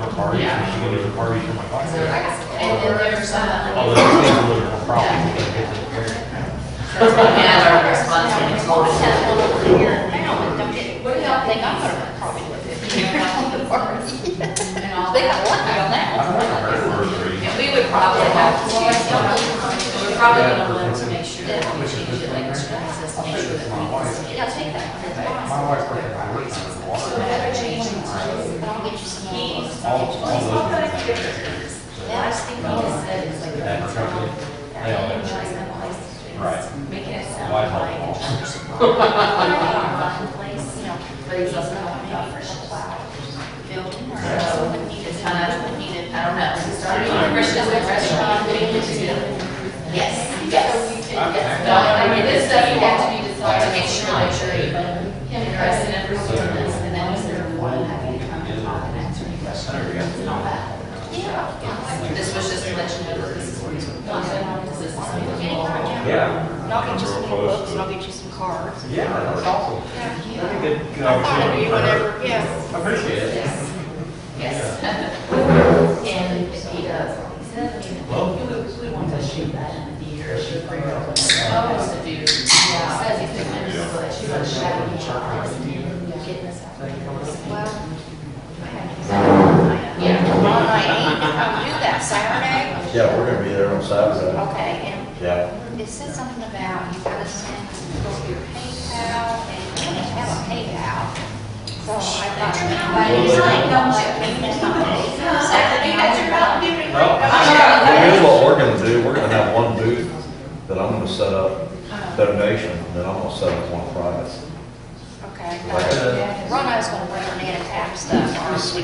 she can do the parties for my wife. So, and then there's, uh, Although it's a little bit of a problem, we gotta get to the parents. that's what we had our response when it's all set. What do y'all think? I'm gonna probably with it. You know, on the party. They got lucky on that I one. don't know, I heard words or anything. And we would probably have to, we're probably gonna want to make sure that we change the language, just make sure that we, Yeah, take that. My wife worked at my roots under the water. Better change it. But I'll get you some of those. All, all those. Yeah, I think what he said is like. That truck, they all been- Right. Making it sound Why not? like. Place, you know, but he's also not for Building or something needed, kind of needed, I don't know. Starting a restaurant, restaurant, doing it together. Yes, yes. Yes, no, I mean, this stuff you have to be decided to make sure that you're, him and President are doing this, and then is there one having to come and talk and answer any questions and all that? Yeah. This was just to let you know that this is where he's going, this is what we're doing. Yeah. And I'll get you some new books, and I'll get you some cards. Yeah, that's awesome. That'd be a good, good I thought opportunity. it'd be whatever, yes. Appreciate it. Yes, yes. And if he does, he said, I mean, Well- we, we want to shoot that in the year, shoot for your own. Says if you, says if you win, so that you don't shadow each other. Getting this out. Well, Yeah. on my eighth, I'll do that Saturday. Yeah, we're gonna be there on Saturday. Okay, and Yeah. it said something about you gotta send go to your PayPal, and you don't have a PayPal. So I thought. Well, they- Saturday, that's your problem. Well, here's what we're gonna do, we're gonna have one booth that I'm gonna set up, donation, and then I'm gonna set up one private. Okay. Rhonda's gonna wait on Anna Tapp stuff, honestly.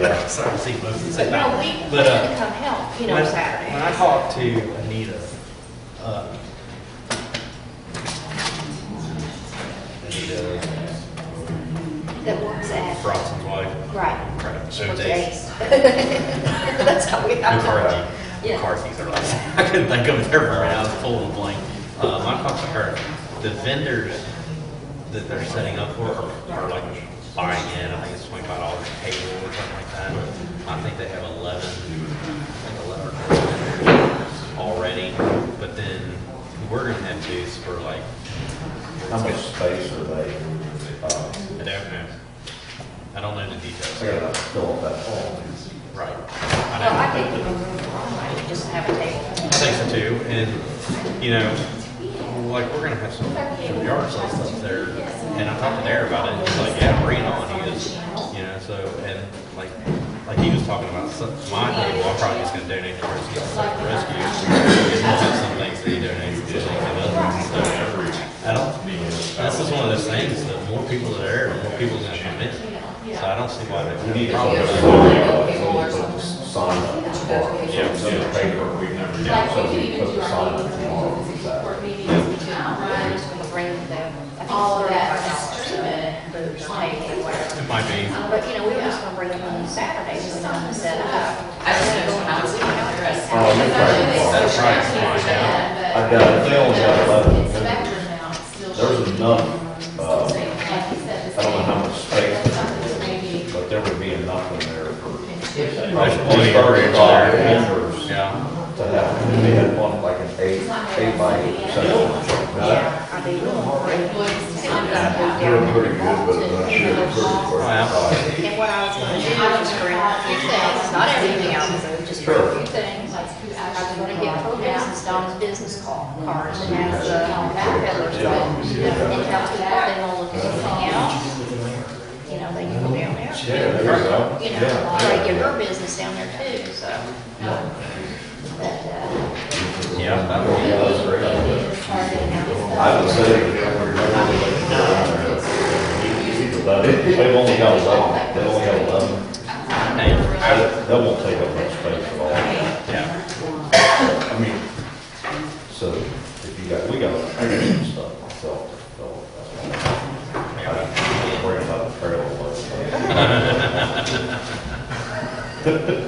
Yeah. So I see both of But no, we, we But, uh, to come help, you know, When- Saturday. When I talked to Anita, uh, Anita that works at, Bronson's wife, right, crap, so for they, days. That's how we, I talk. McCarthy, McCarthy's are like, I couldn't think of their name, I was full of blank. Um, I talked to her, the vendors that they're setting up for are are like buying in, I think it's twenty-five dollars a table or something like that. I think they have eleven, I think eleven or twelve vendors already, but then we're gonna have booths for like, How much space are they, uh, I don't know. I don't know the I details. gotta fill up that hall. Right. Well, I I think don't- we can move on, like, just have a table. I think so too, and, you know, like, we're gonna have some, some yard sale stuff there, and I talked to Darren about it, and he's like, yeah, bring it on, he is, you know, so, and like, like he was talking about, some- my thing, well, I'm probably just gonna donate to rescue, like, rescue, because we'll have some things that he donates, to, like, and others, so. I don't, this is one of those things, that more people that are there, the more people are gonna come in, so I don't see why that would be a problem. Sign up tomorrow. So it's in the paper. We never did. So we put the sign up tomorrow for Saturday. Bring the, I think All of that it's is thirty-five dollars to pay or whatever. It might be. But, you know, we were just gonna bring them on Saturday, so we can set it up. I just know when I was doing my dress. Oh, you're right. That's right, it's mine now. I got, they only got eleven. It's vendors. backwards now, it's still. There's enough, uh, Like you said, I the don't know how same. much space, Something's maybe. but there would be enough in there for There's probably plenty of area thirty-five there. members. Yeah. to have, we had one like an eight, eight by eight section. Yeah, I mean, They're pretty good, but I'm not sure they're Wow. pretty. and what I was gonna do was bring a few things, not everything else, but just bring a few things. Like, I was gonna get programs and Don's business call, cards, and have the backpedalers, but, you know, and tell people if they wanna look at anything else. You know, they can go down there. Yeah, there you go. you know, Yeah. try to get her business down there too, so. But, uh, Yeah, that would be- Yeah, that's great. I would say. They've only got eleven, they only got eleven. hey, I- That won't take up much space at all. uh,